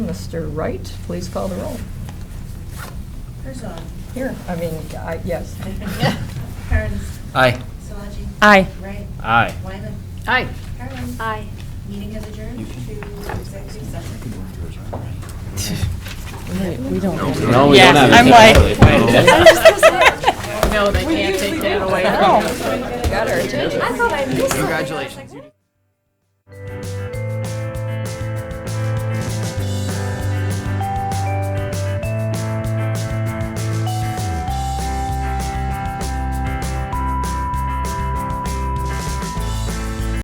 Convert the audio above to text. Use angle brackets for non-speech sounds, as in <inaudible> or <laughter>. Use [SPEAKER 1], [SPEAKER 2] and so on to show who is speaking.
[SPEAKER 1] Mr. Wright, please call the roll.
[SPEAKER 2] Herzog.
[SPEAKER 1] Here, I mean, I, yes.
[SPEAKER 2] Kearns.
[SPEAKER 3] Aye.
[SPEAKER 2] Solaji.
[SPEAKER 4] Aye.
[SPEAKER 2] Wright.
[SPEAKER 3] Aye.
[SPEAKER 2] Wyman.
[SPEAKER 4] Aye.
[SPEAKER 2] Carlin.
[SPEAKER 4] Aye.
[SPEAKER 2] Meeting is adjourned to executive session.
[SPEAKER 4] We don't.
[SPEAKER 3] No, we
[SPEAKER 4] Yeah,
[SPEAKER 3] don't have.
[SPEAKER 4] I'm like-
[SPEAKER 3] Wait a minute.
[SPEAKER 4] <laughs> I was just gonna say.